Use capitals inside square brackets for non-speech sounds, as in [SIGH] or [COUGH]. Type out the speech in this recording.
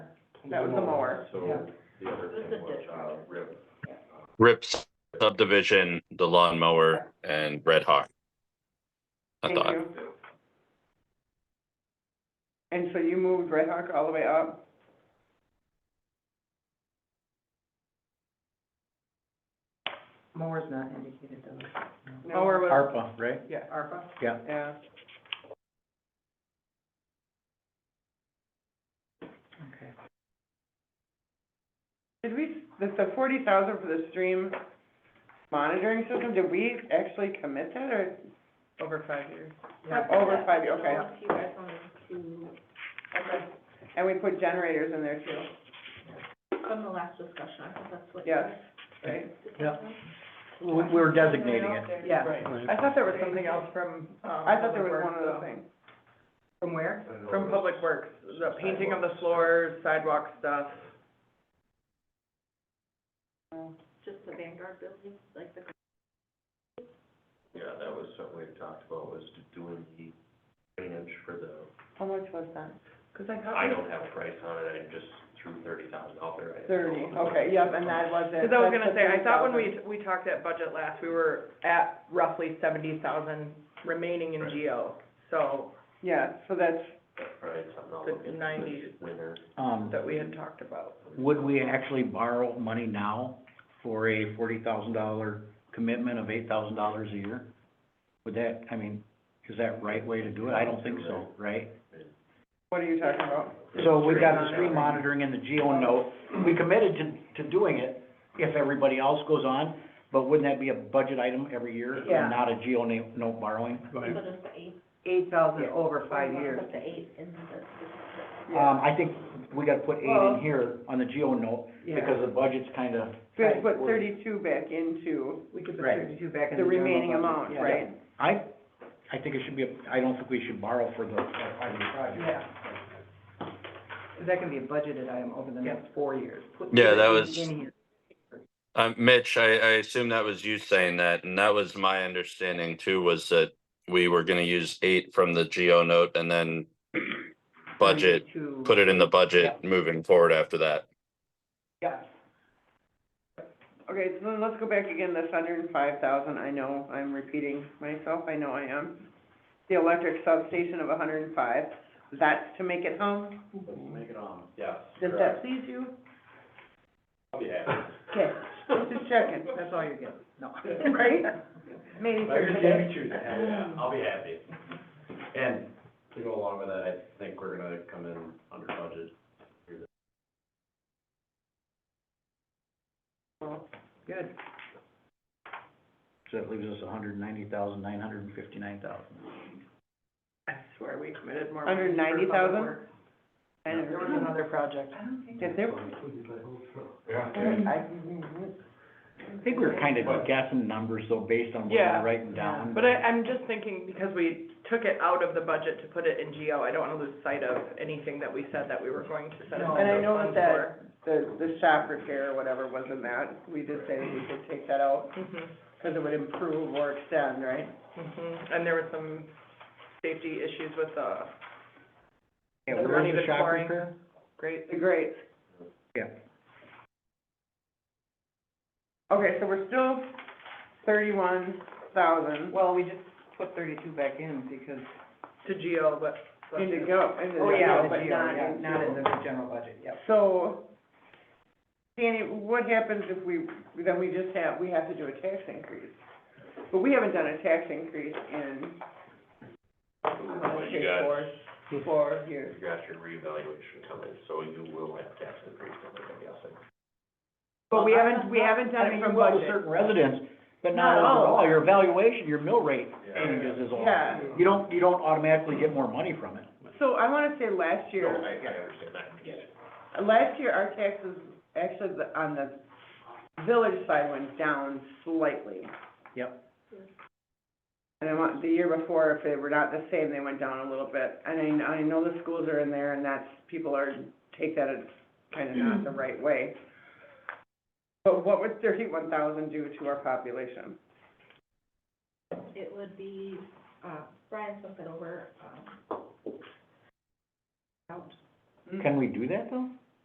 That was the mower. So the other thing was, uh, rip. Rip subdivision, the lawnmower, and Red Hawk. I Thank thought, you. And so you moved Red Hawk all the way up? Mower's not indicated though. Mower was, ARPA, right? yeah, ARPA? Yeah. yeah. Okay. Did we, the, the forty thousand for the stream monitoring system, did we actually commit that or over five years? Over five years, okay. If you guys wanted to, Okay. And we put generators in there too, from the last discussion, I think that's what. Yes. right? Yeah. We- we We're designating it. Yeah. I thought there was something else from, um, I thought there was one other thing. From where? From Public Works, the painting of the floors, sidewalk stuff. Just the Vanguard building, like the, Yeah, that was something we talked about, was doing the drainage for the, How much was that? Cause I thought. I don't have a price on it, I just threw thirty thousand out there. I didn't Thirty, know. okay, yep, and that was it. Because I was That's gonna the say, I thought when 30,000. we, we talked at budget last, we were at roughly seventy thousand remaining in Right. GO. So Yeah, so that's, That's probably something I'll The look into 90. this winter. Um, that we had talked about. would we actually borrow money now for a forty thousand dollar commitment of eight thousand dollars a year? Would that, I mean, is that right way to do it? I don't think so, right? what are you talking about? So we got the stream monitoring and the geo note, we committed to, to doing it if everybody else goes on, but wouldn't that be a budget item every year Yeah. and not a geo na- note borrowing? but it's the eight. Eight thousand over five years. Put the eight in the, Um, I think we gotta put eight Well- in here on the geo note, because the budget's kinda, We have to Right. put thirty-two back into We could put Right. thirty-two back in the the general remaining budget. amount, Yeah. right? I, I think it should be, a- I don't think we should borrow for the, for the project. Yeah. That can be a budgeted item over the next four years. Put Yeah, that everything was- in here. uh, Mitch, I, I assume that was you saying that, and that was my understanding too, was that we were gonna use eight from the geo note and then budget, Thirty-two. put it in the budget moving forward after that. Yeah. Okay, so then let's go back again, this hundred and five thousand, I know I'm repeating myself, I know I am. The electric substation of hundred and five, that's to make it home? Let's make it on, yes. Does that please you? I'll be happy. Okay, just [LAUGHS] checking, That's all you're getting, no. right? Maybe Thursday. Yeah, I'll be happy. And to go along with that, I think we're gonna come in under budget. Good. So that leaves us a hundred and ninety thousand, nine hundred and fifty-nine thousand. I swear, we committed more. Under money for 90,000? public works. And There was another project. Did there, Mm-hmm. I- I think we were kinda guessing numbers, though, based on what Yeah. we're writing down. But I, I'm just thinking, because we took it out of the budget to put it in GO, I don't wanna lose sight of anything that we said that we were going to set No. aside and I those know that funds that, the, the shop repair or whatever was in that, we did say we could take that out, for. Mhm, cause it would improve or extend, right? mhm. And there were some safety issues with the Yeah, the where's running the and shop flooring. repair? great, Great. Yeah. Okay, so we're still thirty-one thousand Well, we just put thirty-two back in because. to GO, but. but- in to go, in the Oh, yeah, go, but the GO, not yeah, in not in to- the general budget, yep. So, Danny, what happens if we, then we just have, we have to do a tax increase? But we haven't done a tax increase in, uh, Well, you say, got, four, four years. you got your reevaluation coming, so you will have tax increase coming, I'm guessing. But we haven't, we haven't done I it mean, from you will to budget. certain residents, but Not not all. overall, your evaluation, your mill rate Yeah. changes is all. Yeah, You don't, you don't automatically get more money from it. so I wanna say last No, year. I, I understand that, I get it. Last year, our taxes, actually, the- on the village side went down slightly. Yep. And I want, the year before, if they were not the same, they went down a little bit. And I, I know the schools are in there and that's, people are, take that as kind of not the Mm-hmm. right way. But what would thirty-one thousand do to our population? it would be, uh, Brian sent it over, um, out. Can we do that, though?